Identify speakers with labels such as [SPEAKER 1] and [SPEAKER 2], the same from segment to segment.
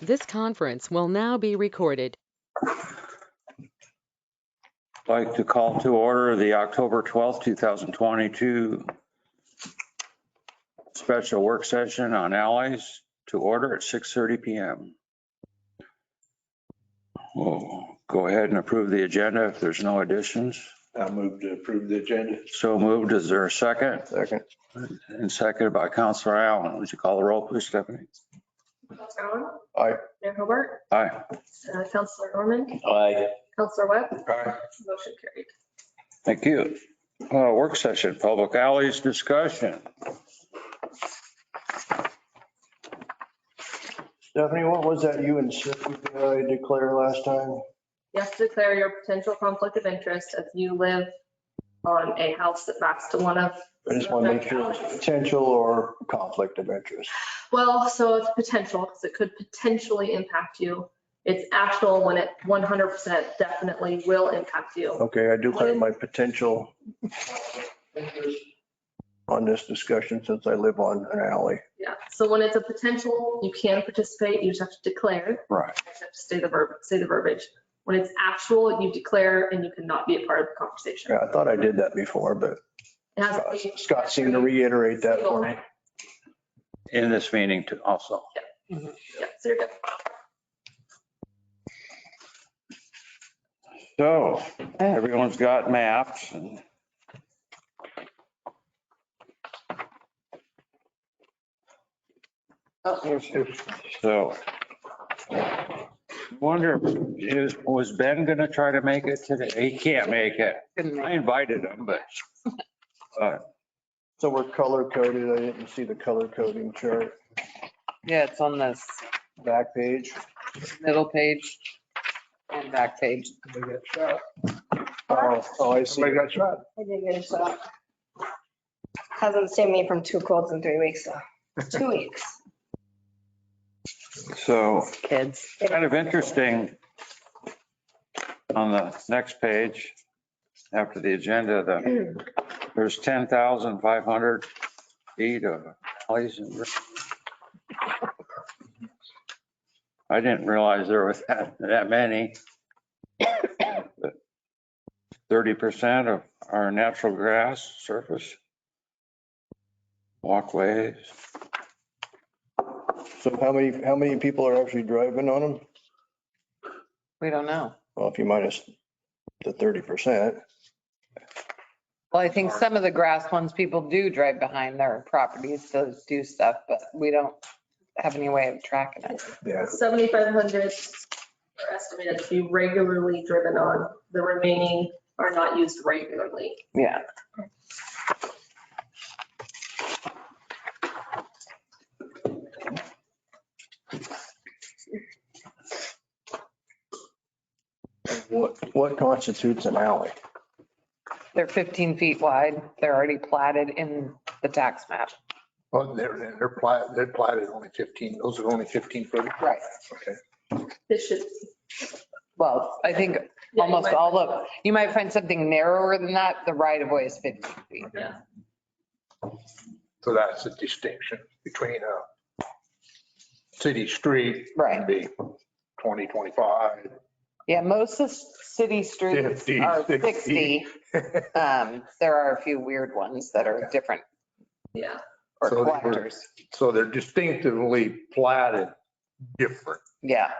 [SPEAKER 1] This conference will now be recorded.
[SPEAKER 2] Like to call to order the October 12th, 2022 special work session on alleys to order at 6:30 PM. We'll go ahead and approve the agenda if there's no additions.
[SPEAKER 3] I move to approve the agenda.
[SPEAKER 2] So moved. Is there a second?
[SPEAKER 3] Second.
[SPEAKER 2] And seconded by Counselor Allen. Would you call the roll, please, Stephanie?
[SPEAKER 4] Counselor Allen.
[SPEAKER 3] Aye.
[SPEAKER 4] Mayor Hobart.
[SPEAKER 2] Aye.
[SPEAKER 4] Uh, Counselor Norman.
[SPEAKER 3] Aye.
[SPEAKER 4] Counselor Webb.
[SPEAKER 3] Aye.
[SPEAKER 4] Motion carried.
[SPEAKER 2] Thank you. Uh, Work session, public alleys discussion.
[SPEAKER 3] Stephanie, what was that you and Sue uh, declared last time?
[SPEAKER 4] Yes, declare your potential conflict of interest if you live on a house that backs to one of.
[SPEAKER 3] I just want to make sure it's potential or conflict of interest.
[SPEAKER 4] Well, so it's potential, because it could potentially impact you. It's actual when it 100% definitely will impact you.
[SPEAKER 3] Okay, I declare my potential interest on this discussion since I live on an alley.
[SPEAKER 4] Yeah, so when it's a potential, you can participate, you just have to declare.
[SPEAKER 2] Right.
[SPEAKER 4] I just have to Say the verb, say the verbiage. When it's actual, you declare and you cannot be a part of the conversation.
[SPEAKER 3] Yeah, I thought I did that before, but
[SPEAKER 4] It has to be-
[SPEAKER 3] Scott seemed to reiterate that for me.
[SPEAKER 2] In this meeting too, also.
[SPEAKER 4] Yeah, so you're good.
[SPEAKER 2] So everyone's got maps and so. Wonder, is, was Ben gonna try to make it today? He can't make it. I invited him, but
[SPEAKER 3] So we're color coded. I didn't see the color coding chart
[SPEAKER 5] Yeah, it's on this
[SPEAKER 3] back page.
[SPEAKER 5] middle page and back page.
[SPEAKER 3] Oh, oh, I see.
[SPEAKER 6] Somebody got
[SPEAKER 3] shot.
[SPEAKER 6] I did get a shot. Hasn't saved me from two colds in three weeks, so, two weeks.
[SPEAKER 2] so
[SPEAKER 5] Kids.
[SPEAKER 2] kind of interesting on the next page, after the agenda, the, there's 10,500 feet of alleys and. I didn't realize there was that, that many. 30% of our natural grass surface, walkways.
[SPEAKER 3] So how many, how many people are actually driving on them?
[SPEAKER 5] We don't know.
[SPEAKER 3] Well, if you minus the thirty percent,
[SPEAKER 5] Well, I think some of the grass ones, people do drive behind their properties to do stuff, but we don't have any way of tracking it.
[SPEAKER 3] yeah.
[SPEAKER 4] 7,500 are estimated to be regularly driven on. The remaining are not used regularly.
[SPEAKER 5] Yeah.
[SPEAKER 3] What, what constitutes an alley?
[SPEAKER 5] They're 15 feet wide. They're already platted in the tax map.
[SPEAKER 7] Well, Oh, they're, they're platted, they're platted only 15, those are only 15 foot.
[SPEAKER 5] Right.
[SPEAKER 7] Okay.
[SPEAKER 4] This should.
[SPEAKER 5] Well, I think almost all of, you might find something narrower than that. The right of way is 15 feet.
[SPEAKER 7] So that's the distinction between a city street.
[SPEAKER 5] Right.
[SPEAKER 7] and Be 20, 25.
[SPEAKER 5] Yeah, most of city streets
[SPEAKER 7] 50,
[SPEAKER 5] are 60.
[SPEAKER 7] 60.
[SPEAKER 5] Um, There are a few weird ones that are different
[SPEAKER 4] Yeah,
[SPEAKER 5] or
[SPEAKER 7] So they were-
[SPEAKER 5] collectors.
[SPEAKER 7] So they're distinctively platted different.
[SPEAKER 5] Yeah,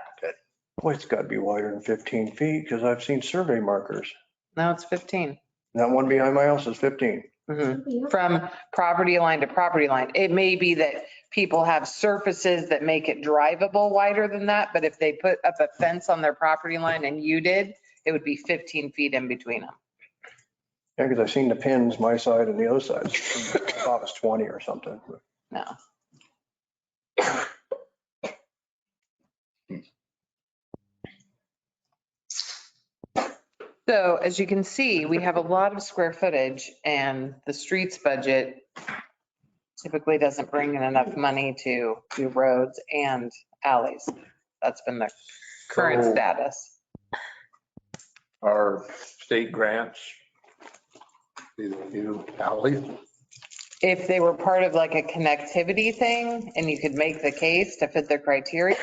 [SPEAKER 3] Boy, it's gotta be wider than fifteen feet, because I've seen survey markers.
[SPEAKER 5] now it's 15.
[SPEAKER 3] That one behind my house is fifteen.
[SPEAKER 5] Mhm. From property line to property line. It may be that people have surfaces that make it drivable wider than that, but if they put up a fence on their property line and you did, it would be 15 feet in between them.
[SPEAKER 3] Yeah, because I've seen the pins, my side and the other side. I thought it was twenty or something.
[SPEAKER 5] No. So as you can see, we have a lot of square footage and the streets budget typically doesn't bring in enough money to do roads and alleys. That's been the current
[SPEAKER 7] So
[SPEAKER 5] status.
[SPEAKER 7] Our state grants, either you, alleys.
[SPEAKER 5] If they were part of like a connectivity thing and you could make the case to fit the criteria,